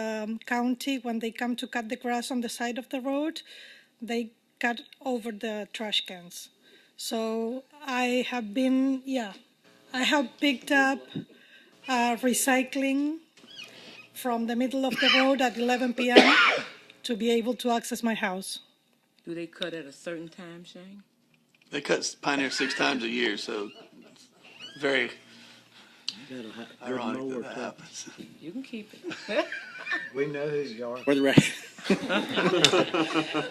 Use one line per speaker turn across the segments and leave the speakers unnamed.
um, county, when they come to cut the grass on the side of the road, they cut over the trash cans. So I have been, yeah, I have picked up uh, recycling from the middle of the road at 11 p.m. to be able to access my house.
Do they cut at a certain time, Shane?
They cut Pioneer six times a year, so it's very
That'll ha- good
ironic
mower
that that
truck.
happens.
You can keep it.
We know who you are.
For the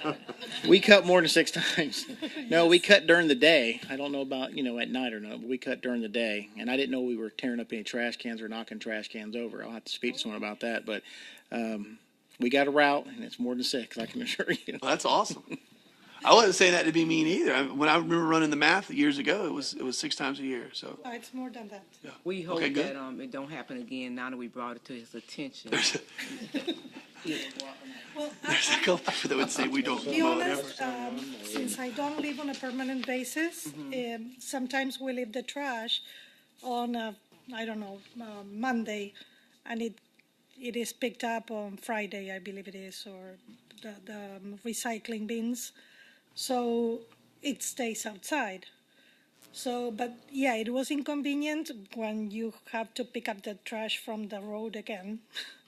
record. we cut more than six times. No, we cut during the day. I don't know about, you know, at night or not, but we cut during the day. And I didn't know we were tearing up any trash cans or knocking trash cans over. I'll have to speak to someone about that. But um, we got a route, and it's more than six, I can assure you.
Well, that's awesome. I wasn't saying that to be mean either. I, when I remember running the math years ago, it was it was six times a year. So
Uh, It's more than that.
We hope
Okay,
that
good.
um, it don't happen again. Now that we brought it to his attention.
Well,
there's a couple people that would say we don't.
be
mow it ever.
honest, um, since I don't live on a permanent basis, um, sometimes we leave the trash on a, I don't know, uh, Monday, and it it is picked up on Friday, I believe it is, or the, the um, recycling bins. So it stays outside. So, but yeah, it was inconvenient when you have to pick up the trash from the road again.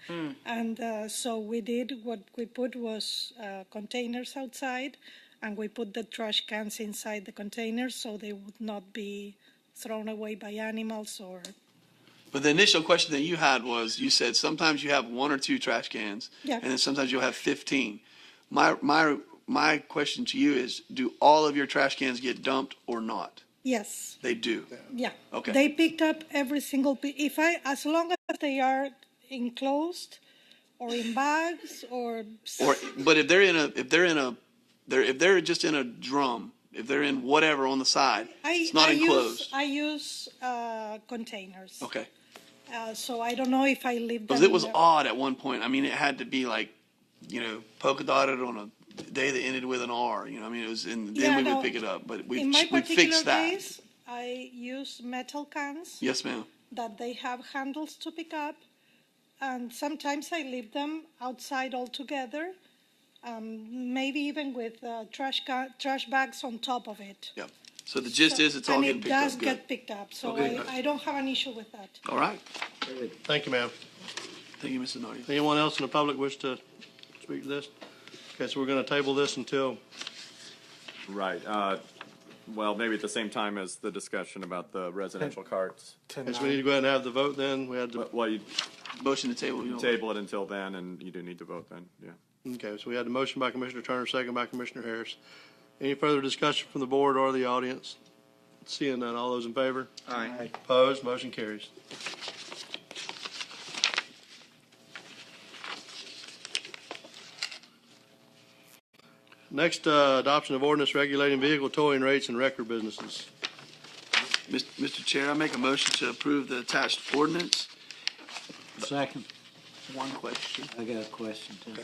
And uh, so we did what we put was uh, containers outside, and we put the trash cans inside the containers so they would not be thrown away by animals or
But the initial question that you had was, you said sometimes you have one or two trash cans,
Yeah.
and then sometimes you'll have fifteen. My my my question to you is, do all of your trash cans get dumped or not?
yes,
They do.
yeah.
Okay.
They picked up every single pi- if I as long as they are enclosed or in bags or s-
Or but if they're in a if they're in a they're if they're just in a drum, if they're in whatever on the side,
I
it's not
I
enclosed.
use I use uh, containers.
okay.
Uh, so I don't know if I leave them.
Because it was
in the-
odd at one point. I mean, it had to be like, you know, polka dotted on a day that ended with an R. You know, I mean, it was, and then
Yeah,
we
no.
would pick it up. But we
In my
we
particular
fixed that.
case, I use metal cans
Yes, ma'am.
that they have handles to pick up, and sometimes I leave them outside altogether, um, maybe even with uh, trash ca- trash bags on top of it.
Yep. So the gist is, it's all
and
getting
it
picked
does
up. Good.
get picked up, so
Okay.
I, I don't have an issue with that.
All right.
Thank you, ma'am.
Thank you, Mr. Nardi.
Anyone else in the public wish to speak to this? Okay, so we're going to table this until,
Right, uh, well, maybe at the same time as the discussion about the residential carts.
yes, we need to go ahead and have the vote then. We had to,
But- Well, you
Motion to table. You know.
table it until then, and you do need to vote then, yeah.
okay, so we had the motion by Commissioner Turner, second by Commissioner Harris. Any further discussion from the board or the audience? Seeing none, all those in favor?
Aye.
Opposed, motion carries. Next, uh, adoption of ordinance regulating vehicle towing rates and record businesses.
Mis- Mr. Chair, I make a motion to approve the attached ordinance.
Second,
One question.
I got a question too.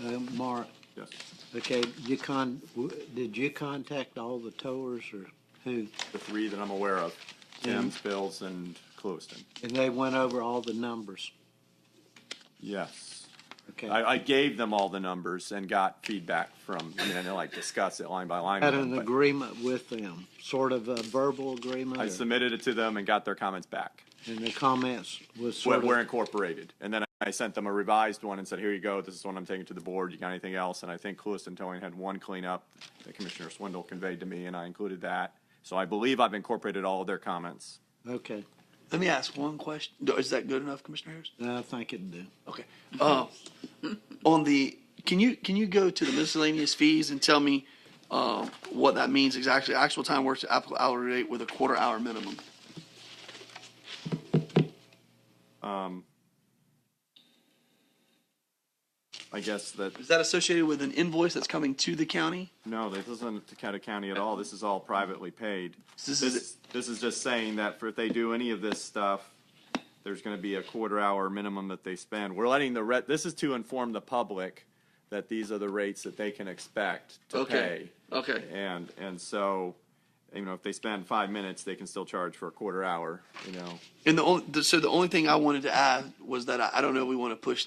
Uh, Mark,
Yes.
okay, you con, w- did you contact all the towers or who?
The three that I'm aware of, Tim's, Bill's, and Clewiston.
And they went over all the numbers,
Yes.
okay?
I, I gave them all the numbers and got feedback from, I mean, I didn't like discuss it line by line. with
Had
them,
an
but
agreement with them, sort of a verbal agreement?
I
or-
submitted it to them and got their comments back.
And the comments was
Where,
sort
where
of,
incorporated. And then I sent them a revised one and said, here you go, this is one I'm taking to the board, you got anything else? And I think Cluiston Towing had one cleanup that Commissioner Swindle conveyed to me, and I included that. So I believe I've incorporated all of their comments.
okay,
Let me ask one question. No, Is that good enough, Commissioner Harris?
I think it'd do.
Okay. Uh, on the, can you, can you go to the miscellaneous fees and tell me, um, what that means exactly? Actual time works applicable hourly rate with a quarter hour minimum.
I guess that,
Is that associated with an invoice that's coming to the county?
no, this isn't to Decatur County at all, this is all privately paid.
This
This,
is-
this is just saying that for, if they do any of this stuff, there's gonna be a quarter hour minimum that they spend. We're letting the, re- this is to inform the public that these are the rates that they can expect to
Okay.
pay.
Okay.
And, and so, you know, if they spend five minutes, they can still charge for a quarter hour, you know?
And the only, so the only thing I wanted to add was that I, I don't know, if we want to push